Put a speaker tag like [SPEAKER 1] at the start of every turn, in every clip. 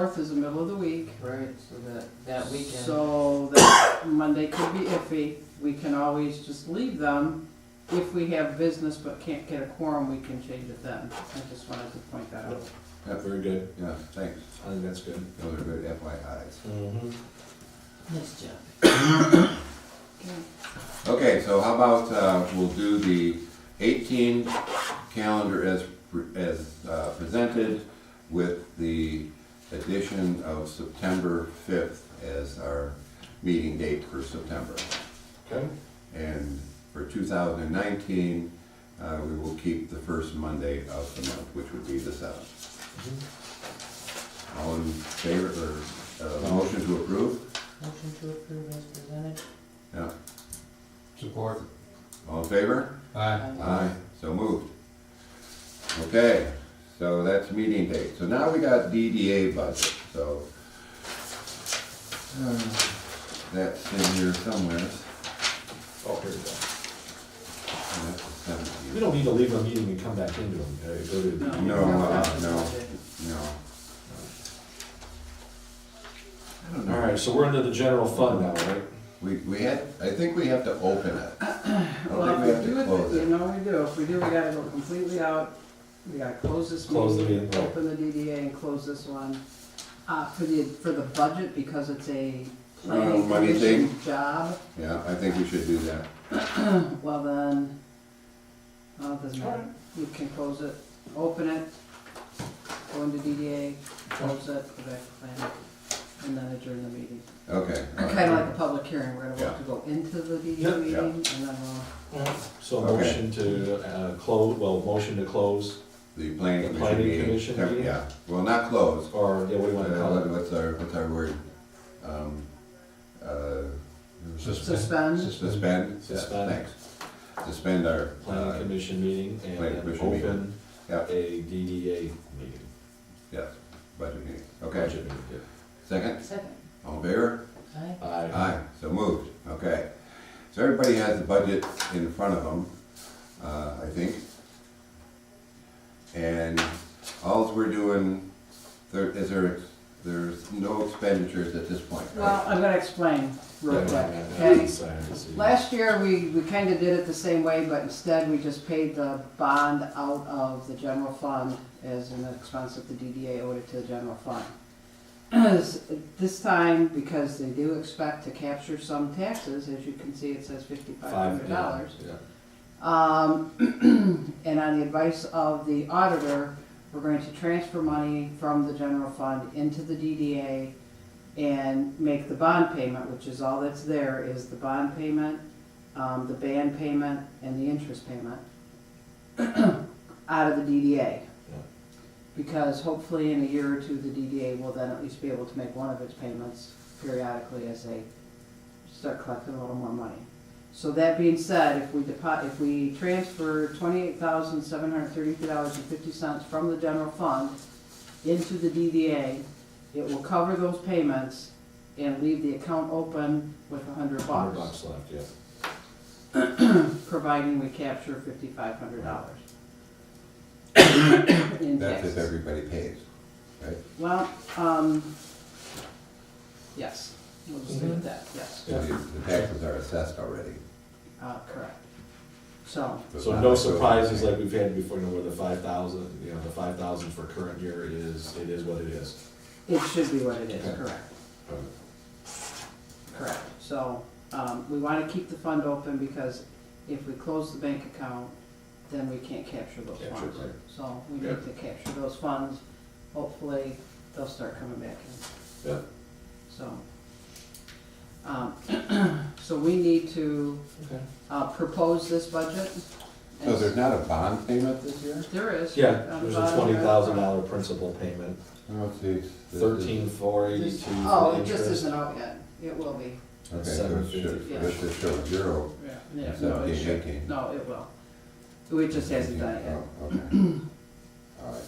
[SPEAKER 1] Fourth is the middle of the week,
[SPEAKER 2] Right, so that, that weekend,
[SPEAKER 1] so that Monday could be iffy. We can always just leave them. If we have business but can't get a quorum, we can change it then. I just wanted to point that out.
[SPEAKER 3] Yeah, very good.
[SPEAKER 4] Yeah, thanks.
[SPEAKER 3] I think that's good.
[SPEAKER 4] Those are good FYI's.
[SPEAKER 2] nice job.
[SPEAKER 4] Okay, so how about, uh, we'll do the eighteen calendar as, pre- as uh, presented with the addition of September fifth as our meeting date for September.
[SPEAKER 3] Okay.
[SPEAKER 4] And for two thousand and nineteen, uh, we will keep the first Monday of the month, which would be the seventh.
[SPEAKER 3] Mm-hmm.
[SPEAKER 4] All in favor, or, uh, motion to approve?
[SPEAKER 2] Motion to approve as presented.
[SPEAKER 4] Yeah,
[SPEAKER 5] Support.
[SPEAKER 4] all in favor?
[SPEAKER 5] Aye.
[SPEAKER 4] Aye, so moved. Okay, so that's meeting date. So now we got DDA budget, so. uh, That's in here somewhere.
[SPEAKER 3] Oh, here we go.
[SPEAKER 4] And that's the
[SPEAKER 3] We
[SPEAKER 4] 17th.
[SPEAKER 3] don't need to leave a meeting and come back into them. uh, go to-
[SPEAKER 1] No.
[SPEAKER 4] No, uh, no, no. I don't
[SPEAKER 3] All
[SPEAKER 4] know.
[SPEAKER 3] right, so we're into the general fund now, right?
[SPEAKER 4] We, we had, I think we have to open it. I don't
[SPEAKER 1] Well,
[SPEAKER 4] think we
[SPEAKER 1] if we
[SPEAKER 4] have to
[SPEAKER 1] do
[SPEAKER 4] close
[SPEAKER 1] it, you
[SPEAKER 4] it.
[SPEAKER 1] know we do. If we do, we gotta go completely out. We gotta close this
[SPEAKER 3] Close the
[SPEAKER 1] meeting,
[SPEAKER 3] meeting, right.
[SPEAKER 1] open the DDA and close this one. Uh, for the, for the budget, because it's a planning
[SPEAKER 4] money
[SPEAKER 1] commission
[SPEAKER 4] thing.
[SPEAKER 1] job,
[SPEAKER 4] Yeah, I think we should do that.
[SPEAKER 1] well then, uh, doesn't matter. You can close it, open it, go into DDA, close it, go back to planning, and then adjourn the meeting.
[SPEAKER 4] Okay. all right.
[SPEAKER 1] Kinda like a public hearing, we're gonna
[SPEAKER 4] Yeah.
[SPEAKER 1] have to go into the
[SPEAKER 3] Yeah, yeah.
[SPEAKER 1] DDA meeting and then we'll.
[SPEAKER 3] So a
[SPEAKER 4] Okay.
[SPEAKER 3] motion to, uh, close, well, motion to close,
[SPEAKER 4] The planning
[SPEAKER 3] The
[SPEAKER 4] commission
[SPEAKER 3] planning
[SPEAKER 4] meeting.
[SPEAKER 3] commission
[SPEAKER 4] Yeah,
[SPEAKER 3] meeting?
[SPEAKER 4] Yeah, well, not closed,
[SPEAKER 3] or, yeah, what do you wanna call
[SPEAKER 4] Uh,
[SPEAKER 3] it?
[SPEAKER 4] What's our, what's our word? Um, uh,
[SPEAKER 1] Suspend,
[SPEAKER 4] Suspend? Yeah,
[SPEAKER 3] Uh, Suspend.
[SPEAKER 4] Thanks. Suspend our, uh,
[SPEAKER 3] Planning commission meeting and
[SPEAKER 4] planning
[SPEAKER 3] then
[SPEAKER 4] commission meeting.
[SPEAKER 3] open
[SPEAKER 4] yeah,
[SPEAKER 3] a DDA meeting.
[SPEAKER 4] yes, budget meeting. Okay,
[SPEAKER 3] budget meeting, yeah.
[SPEAKER 4] second,
[SPEAKER 2] Second.
[SPEAKER 4] all in favor?
[SPEAKER 2] Aye.
[SPEAKER 3] Aye.
[SPEAKER 4] Aye, so moved, okay. So everybody has the budget in front of them, uh, I think. And alls we're doing, there, is there, there's no expenditures at this point,
[SPEAKER 1] well,
[SPEAKER 4] right?
[SPEAKER 1] I'm gonna explain real
[SPEAKER 3] Yeah,
[SPEAKER 1] quick,
[SPEAKER 3] yeah, yeah,
[SPEAKER 1] okay?
[SPEAKER 3] sorry, I see.
[SPEAKER 1] Last year, we, we kind of did it the same way, but instead we just paid the bond out of the general fund as an expense that the DDA owed it to the general fund. This time, because they do expect to capture some taxes, as you can see, it says fifty-five
[SPEAKER 3] Five,
[SPEAKER 1] hundred
[SPEAKER 3] yeah,
[SPEAKER 1] dollars.
[SPEAKER 3] yeah.
[SPEAKER 1] Um, and on the advice of the auditor, we're going to transfer money from the general fund into the DDA and make the bond payment, which is all that's there, is the bond payment, um, the band payment, and the interest payment out of the DDA. Because hopefully in a year or two, the DDA will then at least be able to make one of its payments periodically as they start collecting a little more money. So that being said, if we depo if we transfer twenty-eight thousand, seven hundred thirty-three dollars and fifty cents from the general fund into the DDA, it will cover those payments and leave the account open with a hundred
[SPEAKER 3] Hundred
[SPEAKER 1] bucks,
[SPEAKER 3] bucks left, yeah.
[SPEAKER 1] providing we capture fifty-five hundred dollars.
[SPEAKER 4] That's if everybody pays, right?
[SPEAKER 1] Well, um, yes, we'll just leave it at that, yes,
[SPEAKER 4] So The the taxes are assessed already.
[SPEAKER 1] uh, correct. So,
[SPEAKER 4] it's
[SPEAKER 3] So
[SPEAKER 4] not
[SPEAKER 3] no
[SPEAKER 4] like those-
[SPEAKER 3] surprises like we've had before, you know, where the five thousand, you know, the five thousand for current year is, it is what it is.
[SPEAKER 1] it should be what it is,
[SPEAKER 3] Okay.
[SPEAKER 1] correct.
[SPEAKER 3] Um,
[SPEAKER 1] Correct, so, um, we wanna keep the fund open because if we close the bank account, then we can't capture those
[SPEAKER 3] Capture,
[SPEAKER 1] funds.
[SPEAKER 3] right.
[SPEAKER 1] So we need to capture those funds, hopefully they'll start coming back in,
[SPEAKER 3] Yeah,
[SPEAKER 1] so. Um, so we need to,
[SPEAKER 3] okay.
[SPEAKER 1] uh, propose this budget.
[SPEAKER 4] So there's not a bond payment this year?
[SPEAKER 1] There is.
[SPEAKER 3] Yeah,
[SPEAKER 1] Um, bond,
[SPEAKER 3] there's a
[SPEAKER 1] uh,
[SPEAKER 3] twenty thousand dollar principal payment,
[SPEAKER 4] Oh, geez. This is-
[SPEAKER 3] thirteen four eighty-two
[SPEAKER 1] Oh,
[SPEAKER 3] for
[SPEAKER 1] it just
[SPEAKER 3] interest.
[SPEAKER 1] isn't out yet, it will be,
[SPEAKER 4] Okay, so it should,
[SPEAKER 3] 750.
[SPEAKER 4] this should show zero,
[SPEAKER 1] yeah, yeah, no, it
[SPEAKER 4] seventeen,
[SPEAKER 1] should,
[SPEAKER 4] eighteen.
[SPEAKER 1] no, it will. It just hasn't done it yet.
[SPEAKER 4] Oh, okay. All right,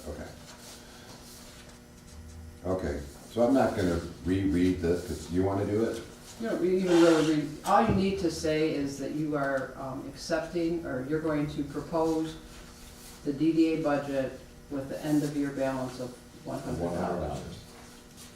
[SPEAKER 4] okay. Okay, so I'm not gonna reread this, because you want to do it?
[SPEAKER 1] You don't really even really read, all you need to say is that you are um, accepting, or you're going to propose the DDA budget with the end of year balance of one hundred
[SPEAKER 3] One hundred
[SPEAKER 1] dollars.
[SPEAKER 3] dollars.